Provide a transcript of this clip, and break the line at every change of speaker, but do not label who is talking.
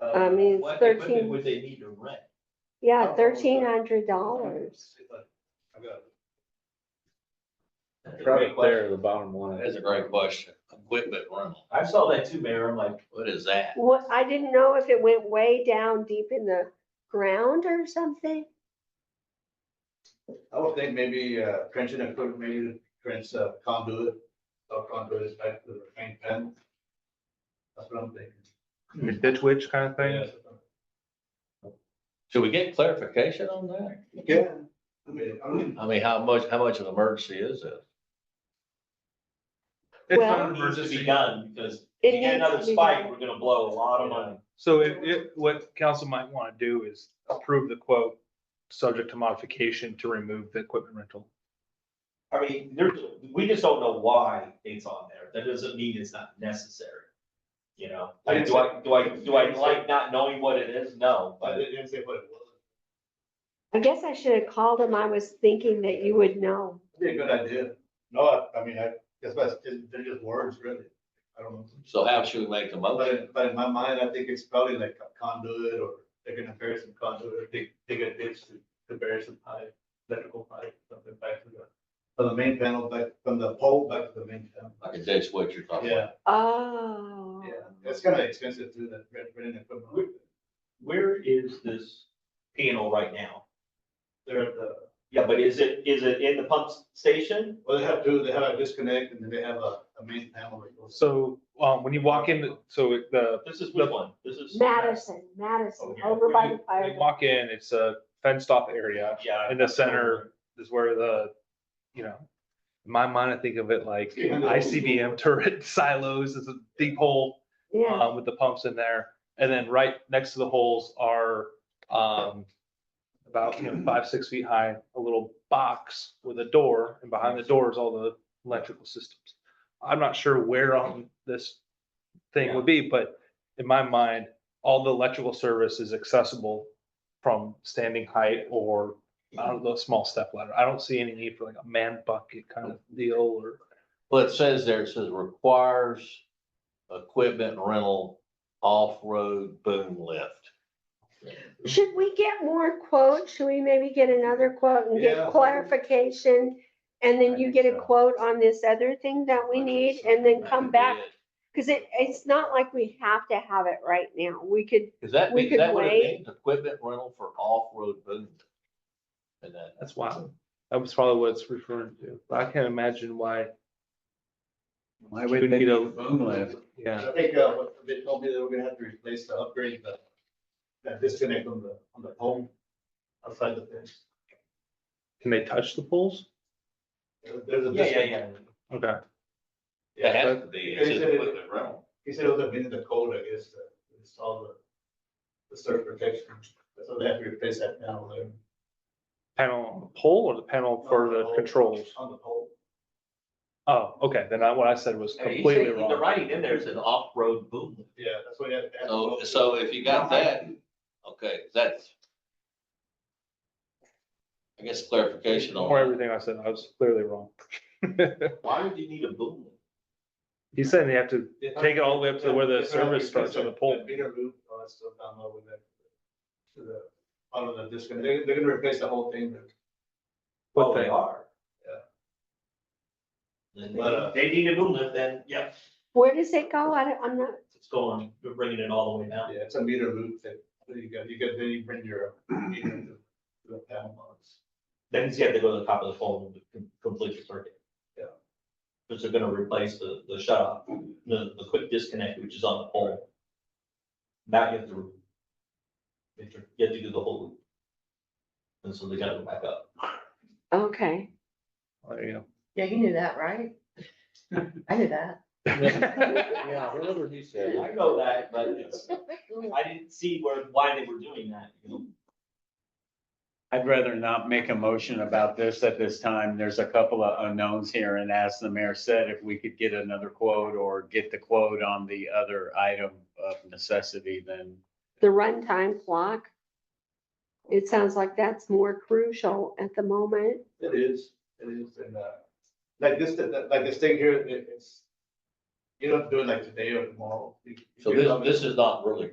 Uh,
I mean, it's
What
13.
equipment would they need to rent?
Yeah,
Oh,
thirteen hundred dollars.
I've got- That's a
Right
great
there,
question.
the bottom line.
That's a great question. Equipment rental,
I saw that too, Mayor. I'm like,
what is that?
What, I didn't know if it went way down deep in the ground or something.
I would think maybe uh, trenching and put maybe trench uh, conduit, or conduit is back to the paint pen. That's what I'm thinking.
Like Ditch witch kind of thing.
Should we get clarification on that?
Yeah. I mean, I don't,
I mean, how much, how much of an emergency is it?
It's
Well-
not
it
an
needs to be
emergency.
done because
It
if you get
needs to
another
be
spike,
done.
we're gonna blow a lot of money.
So it, it, what council might want to do is approve the quote, subject to modification to remove the equipment rental.
I mean, there's, we just don't know why it's on there. That doesn't mean it's not necessary. You know, I mean, do I, do I, do I like not knowing what it is? No,
I
but
didn't say what it was.
I guess I should have called him. I was thinking that you would know.
Be a good idea. No, I, I mean, I, that's, that's, they're just words, really. I don't know.
So how should we make the
But,
motion?
in- but in my mind, I think it's probably like a conduit or they're gonna bury some conduit, or dig, dig a ditch to, to bury some pipe, electrical pipe, something back to the. From the main panel, back, from the pole back to the main panel.
Like a ditch what you're talking
Yeah,
about?
Oh.
yeah, that's kind of expensive too, that rent, renting equipment.
where is this panel right now?
They're at the,
Yeah, but is it, is it in the pump station?
well, they have two, they have a disconnect and then they have a, a main panel. that goes-
So, um, when you walk in, so it- the,
This is which one? This is.
Madison, Madison,
Oh, yeah.
over by the
when
fire.
you walk in, it's a fenced off area
Yeah.
in the center is where the, you know, in my mind, I think of it like ICBM turret silos, it's a deep hole
uh,
Yeah,
um, with the pumps in there. And then right next to the holes are, um, about, you know, five, six feet high, a little box with a door and behind the door is all the electrical systems. I'm not sure where on this thing would be, but in my mind, all the electrical service is accessible from standing height or out of the small step ladder. I don't see any need for like a man bucket kind of deal or.
Well, it says there, it says requires equipment rental, off-road boom lift.
should we get more quotes? Should we maybe get another quote and
Yeah.
get clarification? And
I
then you
think
get a
so.
quote on this other thing that we need and then come back? Cause it, it's not like we have to have it right now. We could,
Is that,
We
be-
could
that would have
wait.
been equipment rental for off-road boom? lift. And that,
That's wild. That was probably what it's referring to. But I can't imagine why.
Why
would they need a
boom lift?
Yeah,
I think, uh, what they told me they were gonna have to replace the upgrade, the, that disconnect on the, on the pole outside the fence.
can they touch the poles?
There- There's a
Yeah, yeah,
disconnect.
yeah.
Okay,
that
Yeah,
has
but
to be, it's just equipment rental.
he said it would have been in the code, I guess, to install the, the surf protection, so they have to replace that panel there.
panel on the pole or the panel for the controls?
On the pole.
Oh, okay, then I, what I said was
I mean, he's
completely
saying- The
wrong.
writing in there is an off-road boom. lift.
Yeah, that's what you have to have.
So, Oh, so if you got that, okay, that's. I guess clarification
Or
on,
everything I said, I was clearly wrong.
Why would you need a boom? lift?
He said they have to take it all the way up to where the
Yeah,
service
yeah,
starts on the pole.
the Meter loop, all that stuff down low with that. To the, out of the disconnect, they're, they're gonna replace the whole thing,
Well, Oh,
What
they
thing?
are.
then
But, uh,
They need a boom lift then, yep,
where does it go? I don't, I'm not,
it's going, you're bringing it all the way down.
yeah, it's a meter loop that, that you got, you got, then you bring your. meter to The panel box.
Then you have to go to the top of the phone to com- complete your circuit.
Yeah.
Because they're gonna replace the, the shut off, the, the quick disconnect, which is on the pole. That you have to. You have to- you have to do the whole loop. And so they gotta go back up.
okay.
There you
Yeah, you knew that, right? I knew that.
go.
Yeah, whatever he said.
I know that, but it's, I didn't see where, why they were doing that, you know?
I'd rather not make a motion about this at this time. There's a couple of unknowns here and as the mayor said, if we could get another quote or get the quote on the other item of necessity, then
the runtime clock. It sounds like that's more crucial at the moment.
It is, it is, and, uh, like this, that- like this thing here, it- it's. You don't do it like today or tomorrow. You-
So
you
this,
come in-
this is not really